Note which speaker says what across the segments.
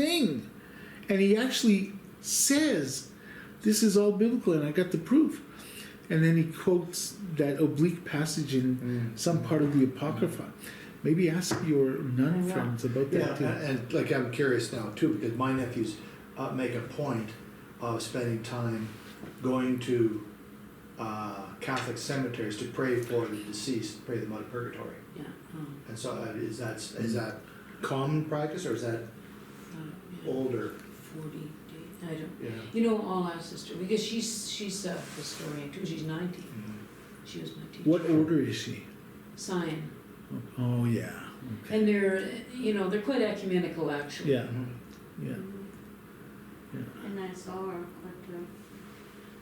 Speaker 1: thing. And he actually says, This is all biblical, and I got the proof. And then he quotes that oblique passage in some part of the Apocrypha. Maybe ask your nun
Speaker 2: Yeah.
Speaker 1: friends about
Speaker 3: Yeah,
Speaker 1: that too.
Speaker 3: and, and like I'm curious now too, because my nephews uh, make a point of spending time going to uh, Catholic cemeteries to pray for the deceased, pray them out of purgatory.
Speaker 2: Yeah. um,
Speaker 3: And so uh, is that is that common practice or is that
Speaker 2: uh, yeah,
Speaker 3: older?
Speaker 2: Forty days, I don't,
Speaker 3: Yeah.
Speaker 2: you know, all our sister, because she's, she's a historian too, she's ninety, she was my teacher.
Speaker 1: What order is she?
Speaker 2: Sign,
Speaker 1: Oh, yeah. Okay.
Speaker 2: and they're, you know, they're quite ecumenical actually.
Speaker 1: Yeah,
Speaker 3: Mm-hmm.
Speaker 1: yeah.
Speaker 4: And I saw her at the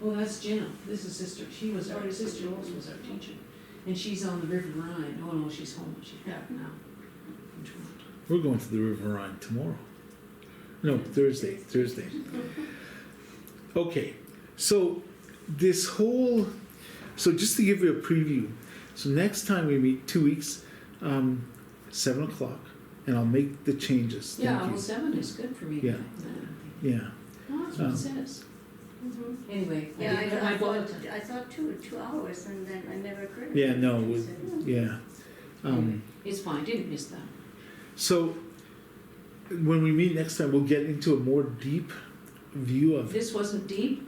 Speaker 2: Well, that's Jenna, this is sister, she was, our sister Rose was our teacher, and she's on the River Rhine, oh no, she's home, she's back now. in Toronto.
Speaker 1: We're going to the River Rhine tomorrow. No, Thursday. Thursday. Okay, so this whole. So just to give you a preview, so next time we meet, two weeks, um, seven o'clock, and I'll make the changes. Thank
Speaker 2: Yeah,
Speaker 1: you.
Speaker 2: well, seven is good for me,
Speaker 1: Yeah.
Speaker 2: I think.
Speaker 1: yeah.
Speaker 2: Well, that's what
Speaker 1: Um,
Speaker 2: it says,
Speaker 4: Mhm.
Speaker 2: anyway.
Speaker 4: Yeah, I,
Speaker 2: did-
Speaker 4: I
Speaker 2: bought-
Speaker 4: thought, I thought two, two hours and then I never heard. of
Speaker 1: Yeah,
Speaker 4: it.
Speaker 1: no, it was-
Speaker 4: So-
Speaker 1: Yeah. Um,
Speaker 2: It's fine, didn't miss that.
Speaker 1: so when we meet next time, we'll get into a more deep view of
Speaker 2: This wasn't deep,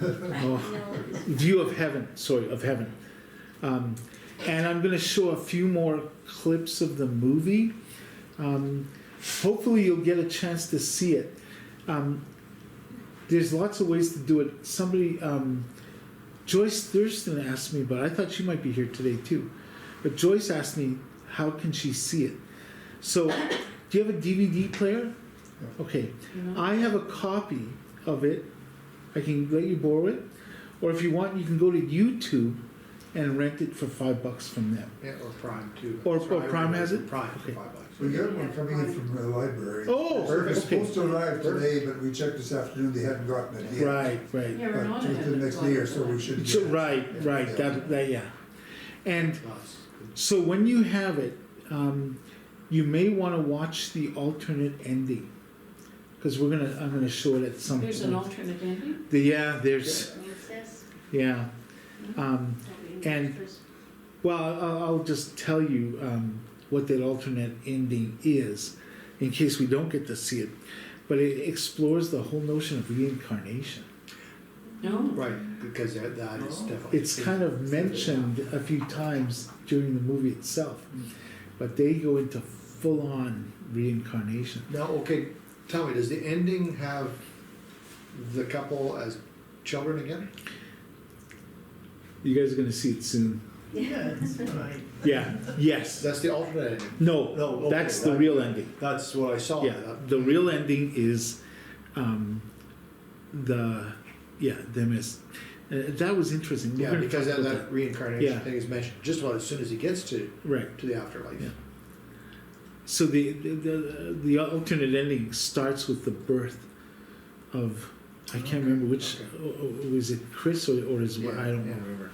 Speaker 1: oh,
Speaker 4: No, it's-
Speaker 1: view of heaven. Sorry, of heaven. Um, and I'm going to show a few more clips of the movie. Um, hopefully, you'll get a chance to see it. Um, there's lots of ways to do it. Somebody, um, Joyce Thurston asked me, but I thought she might be here today too. But Joyce asked me, how can she see it? So, do you have a DVD player? Okay.
Speaker 2: you know?
Speaker 1: I have a copy of it. I can let you borrow it, or if you want, you can go to YouTube and rent it for five bucks from them.
Speaker 3: Yeah, or Prime too.
Speaker 1: Or-
Speaker 3: Sorry,
Speaker 1: or
Speaker 3: I
Speaker 1: Prime has
Speaker 3: remember
Speaker 1: it?
Speaker 3: Prime, for
Speaker 1: Okay.
Speaker 3: five bucks.
Speaker 5: We got one coming in from the library.
Speaker 1: Oh,
Speaker 5: It's supposed
Speaker 1: okay.
Speaker 5: to arrive today, but we checked this afternoon, they hadn't gotten it yet.
Speaker 1: Right, right.
Speaker 2: Yeah, we're
Speaker 5: But
Speaker 2: not
Speaker 5: just
Speaker 2: ahead
Speaker 5: the
Speaker 2: of
Speaker 5: next
Speaker 2: time.
Speaker 5: day or so we should.
Speaker 1: So,
Speaker 5: get it.
Speaker 1: right, right. That, that, yeah. And
Speaker 3: Lots.
Speaker 1: so when you have it, um, you may want to watch the alternate ending because we're gonna. I'm gonna show it at some
Speaker 2: There's an
Speaker 1: point.
Speaker 2: alternate ending?
Speaker 1: The- yeah, there's
Speaker 4: it says
Speaker 1: yeah.
Speaker 4: Mhm.
Speaker 1: Um,
Speaker 4: that we
Speaker 1: And-
Speaker 4: first-
Speaker 1: Well, I'll, I'll just tell you um, what that alternate ending is in case we don't get to see it. But it explores the whole notion of reincarnation.
Speaker 2: No,
Speaker 3: Right, because that, that is definitely.
Speaker 1: It's kind of mentioned a few times during the movie itself, but they go into full on reincarnation.
Speaker 3: Now, okay, tell me, does the ending have the couple as children again?
Speaker 1: You guys are going to see it soon.
Speaker 4: Yeah.
Speaker 1: Yeah, yes.
Speaker 3: That's the alternate ending.
Speaker 1: No,
Speaker 3: No, okay,
Speaker 1: that's the
Speaker 3: that-
Speaker 1: real ending.
Speaker 3: That's what I saw.
Speaker 1: Yeah, Uh, the real ending is um, the, yeah, them as. Uh, that was interesting. We're
Speaker 3: Yeah,
Speaker 1: gonna
Speaker 3: because
Speaker 1: talk
Speaker 3: that,
Speaker 1: about
Speaker 3: that reincarnation
Speaker 1: Yeah.
Speaker 3: thing is mentioned just about as soon as he gets to,
Speaker 1: Right.
Speaker 3: to the afterlife.
Speaker 1: Yeah. So the the, the the alternate ending starts with the birth of I can't remember which o- o- was it Chris or, or his wife
Speaker 3: Yeah,
Speaker 1: I don't
Speaker 3: yeah. Hmm.
Speaker 1: remember.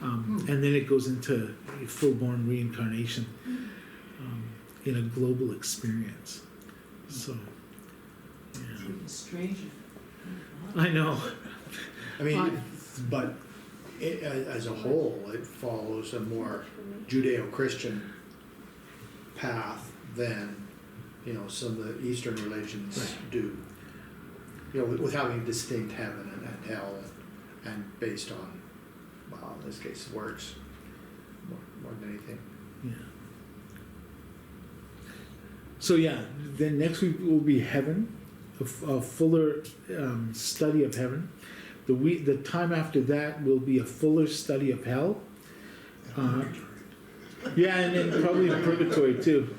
Speaker 1: Um, And then it goes into full-born reincarnation um, in a global experience. So yeah.
Speaker 2: it's a stranger.
Speaker 1: I know.
Speaker 3: I mean,
Speaker 1: Fine.
Speaker 3: but it, a- as a whole, it follows a more Judeo-Christian path than you know some of the Eastern religions do. You know, with, with having distinct heaven and, and hell, and, and based on, well, in this case, works more, more than anything.
Speaker 1: Yeah. So yeah, then next week will be heaven, a, f- a fuller um, study of heaven. The week, the time after that will be a fuller study of hell. Uh, yeah, and then probably in purgatory too.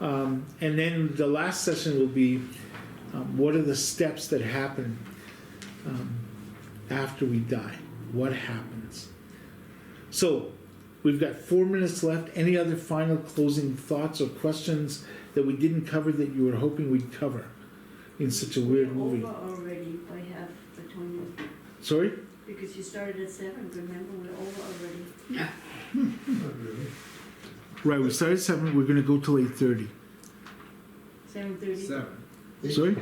Speaker 1: Um, and then the last session will be um, what are the steps that happen um, after we die? What happens? So we've got four minutes left. Any other final closing thoughts or questions that we didn't cover that you were hoping we'd cover in such a weird movie?
Speaker 4: Over already by half the time,
Speaker 1: Sorry?
Speaker 4: because you started at seven, remember, we're over already.
Speaker 5: Not really.
Speaker 1: Right, we started at seven, we're gonna go till eight thirty.
Speaker 4: Seven thirty.
Speaker 6: Seven.
Speaker 5: They-
Speaker 1: Sorry?